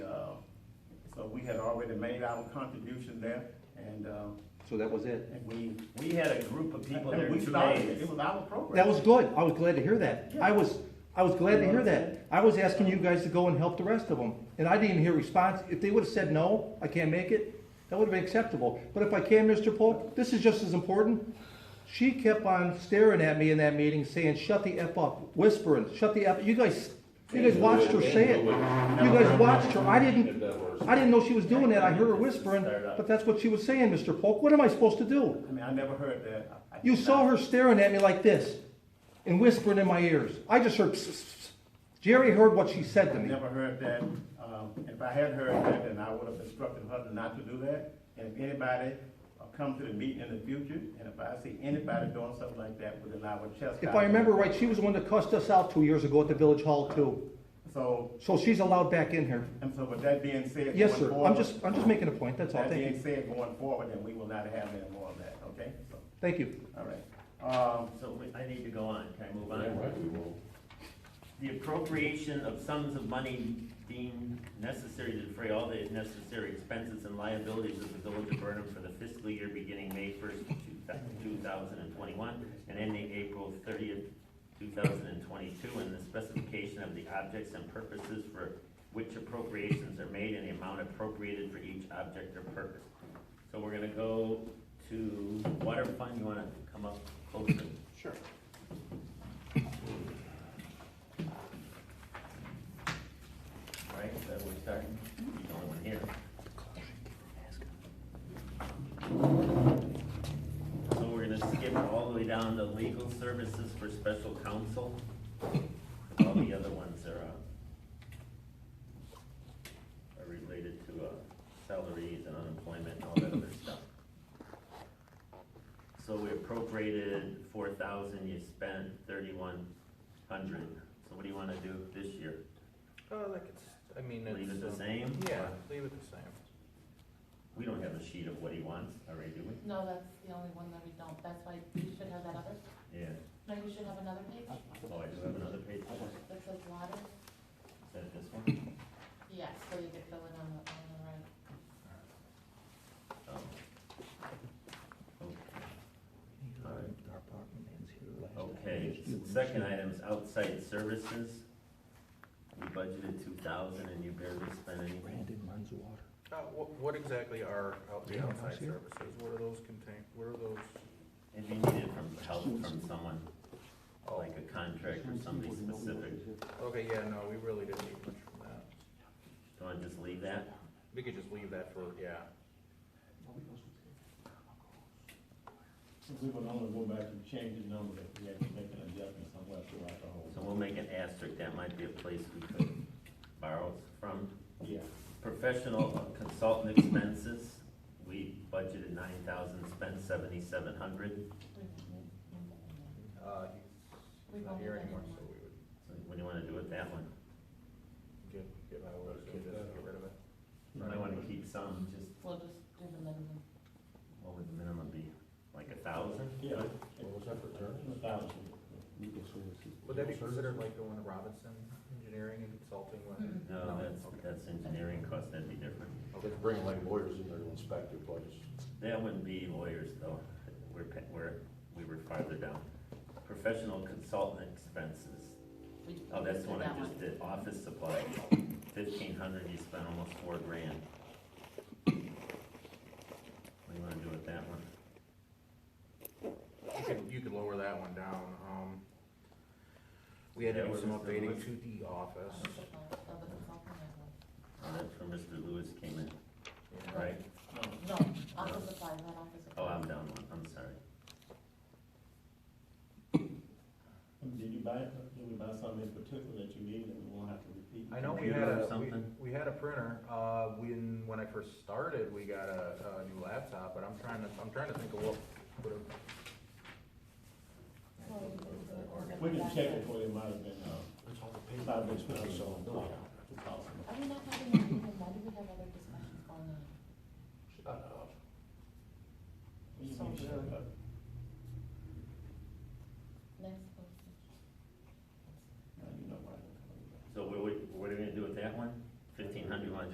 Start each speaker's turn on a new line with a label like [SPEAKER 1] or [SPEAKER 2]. [SPEAKER 1] Uh, had already made our contribution there, and, um,
[SPEAKER 2] So that was it.
[SPEAKER 1] and we,
[SPEAKER 3] We had a group of people there
[SPEAKER 1] and we
[SPEAKER 3] two
[SPEAKER 1] started it,
[SPEAKER 3] days.
[SPEAKER 1] it was our program.
[SPEAKER 2] That was good. I was glad to hear that. I was, I was glad to hear that. I was asking you guys to go and help the rest of them, and I didn't hear response. If they would've said, no, I can't make it, that would've been acceptable. But if I can, Mr. Pope, this is just as important. She kept on staring at me in that meeting, saying, shut the F up, whispering, shut the F, you guys, you guys watched her say it. You guys watched her. I didn't, I didn't know she was doing that. I heard her whispering, but that's what she was saying, Mr. Polk. What am I supposed to do?
[SPEAKER 1] I mean, I never heard that. I- I
[SPEAKER 2] You
[SPEAKER 1] did
[SPEAKER 2] saw
[SPEAKER 1] not-
[SPEAKER 2] her staring at me like this and whispering in my ears. I just heard. "Psst, psst, psst." Jerry heard what she said to
[SPEAKER 1] I
[SPEAKER 2] me.
[SPEAKER 1] never heard that. Um, If I had heard that, then I would have instructed her not to do that. And if anybody uh, come to the meeting in the future, and if I see anybody doing something like that, within our chest.
[SPEAKER 2] If I remember right, she was the one that cussed us out two years ago at the village hall too.
[SPEAKER 1] So,
[SPEAKER 2] So she's allowed back in here.
[SPEAKER 1] and so with that being said.
[SPEAKER 2] Yes,
[SPEAKER 1] going
[SPEAKER 2] sir. I'm
[SPEAKER 1] forward-
[SPEAKER 2] just, I'm just making a point. That's all.
[SPEAKER 1] That
[SPEAKER 2] Thank you.
[SPEAKER 1] being said, going forward, then we will not have any more of that, okay? So,
[SPEAKER 2] Thank you.
[SPEAKER 1] All right. Um,
[SPEAKER 3] So we- I need to go on, can I move
[SPEAKER 4] Yeah,
[SPEAKER 3] on?
[SPEAKER 4] right, we will.
[SPEAKER 3] The appropriation of sums of money deemed necessary to defray all the necessary expenses and liabilities of the village of Burnham for the fiscal year beginning May first, two thousand and twenty-one, and ending April thirtieth, two thousand and twenty-two, and the specification of the objects and purposes for which appropriations are made and the amount appropriated for each object or purpose. So we're gonna go to water fund, you wanna come up closer?
[SPEAKER 5] Sure.
[SPEAKER 3] Right, so we're starting, he's the only one here. So we're gonna skip all the way down to legal services for special counsel. 'cause All the other ones are, uh, are related to, uh, salaries and unemployment and all that other stuff. So we appropriated four thousand, you spent thirty-one hundred, so what do you wanna do this year?
[SPEAKER 5] Oh, like it's, I mean, it's.
[SPEAKER 3] Leave it the
[SPEAKER 5] um,
[SPEAKER 3] same?
[SPEAKER 5] Yeah,
[SPEAKER 3] Or-
[SPEAKER 5] leave it the same.
[SPEAKER 3] We don't have a sheet of what he wants already, do we?
[SPEAKER 6] No, that's the only one that we don't, that's why you should have that other,
[SPEAKER 3] Yeah.
[SPEAKER 6] no, you should have another page
[SPEAKER 3] Oh, I do have another page. Is
[SPEAKER 6] that says water.
[SPEAKER 3] that this one?
[SPEAKER 6] Yes, so you could fill in on the, on the right.
[SPEAKER 3] Oh. Okay. All right. Oh. Okay, second item is outside services. We budgeted two thousand and you barely spent anything.
[SPEAKER 2] Brandon runs water.
[SPEAKER 5] Uh, what, what exactly are out, the
[SPEAKER 2] Yeah,
[SPEAKER 5] outside
[SPEAKER 2] that's here.
[SPEAKER 5] services? What are those contain, what are those?
[SPEAKER 3] If you needed from, help from someone, like a contract or somebody specific,
[SPEAKER 5] Oh, Okay, yeah, no, we really didn't need much from that.
[SPEAKER 3] do I just leave that?
[SPEAKER 5] We could just leave that for, yeah.
[SPEAKER 1] we will only go back and change the number if we had to make an adjustment somewhere throughout the whole.
[SPEAKER 3] So we'll make an asterisk, that might be a place we could borrow from.
[SPEAKER 1] Yeah.
[SPEAKER 3] Professional consultant expenses, we budgeted nine thousand, spent seventy-seven hundred.
[SPEAKER 5] Uh,
[SPEAKER 6] We've
[SPEAKER 5] he's not
[SPEAKER 6] only
[SPEAKER 5] here
[SPEAKER 6] done
[SPEAKER 5] anymore,
[SPEAKER 6] one.
[SPEAKER 5] so we would
[SPEAKER 3] So what do you wanna do with that one?
[SPEAKER 5] get, get out of it, so just get rid of it.
[SPEAKER 3] You might wanna keep some, just,
[SPEAKER 6] We'll just do the minimum.
[SPEAKER 3] what would the minimum be? Like a thousand?
[SPEAKER 1] Yeah.
[SPEAKER 4] What was that for terms?
[SPEAKER 1] A thousand.
[SPEAKER 5] Would that be considered like going to Robinson Engineering and Consulting when?
[SPEAKER 3] No, that's,
[SPEAKER 5] okay.
[SPEAKER 3] that's engineering cost, that'd be different.
[SPEAKER 4] They could bring like lawyers in there to inspect your place.
[SPEAKER 3] That wouldn't be lawyers though, we're, pa- we're, we were farther down. Professional consultant expenses,
[SPEAKER 6] We-
[SPEAKER 3] oh, that's the
[SPEAKER 6] we
[SPEAKER 3] one
[SPEAKER 6] did
[SPEAKER 3] I
[SPEAKER 6] that
[SPEAKER 3] just did, office supplies, fifteen hundred, you spent almost four grand. What do you wanna do with that one?
[SPEAKER 5] You could, you could lower that one down, um, we had to
[SPEAKER 3] Yeah,
[SPEAKER 5] do
[SPEAKER 3] what
[SPEAKER 5] some
[SPEAKER 3] is the
[SPEAKER 5] updating
[SPEAKER 3] list?
[SPEAKER 5] to the office,
[SPEAKER 6] Office supplies, so the consulting I will-
[SPEAKER 3] Oh, that's where Mr. Lewis came in,
[SPEAKER 5] yeah.
[SPEAKER 3] right?
[SPEAKER 6] No, office supplies, not office supplies.
[SPEAKER 3] Oh, I'm down one, I'm sorry.
[SPEAKER 1] Did you buy, did we buy something in particular that you need that we won't have to repeat?
[SPEAKER 5] I know we
[SPEAKER 3] Computer
[SPEAKER 5] had
[SPEAKER 3] or
[SPEAKER 5] a,
[SPEAKER 3] something?
[SPEAKER 5] we, we had a printer, uh, when, when I first started, we got a, a new laptop, but I'm trying to, I'm trying to think of what, would have-
[SPEAKER 6] Well, we can do the-
[SPEAKER 1] We can check it for you, it might have been, uh,
[SPEAKER 4] That's all the
[SPEAKER 1] might have been special.
[SPEAKER 6] Are we not having a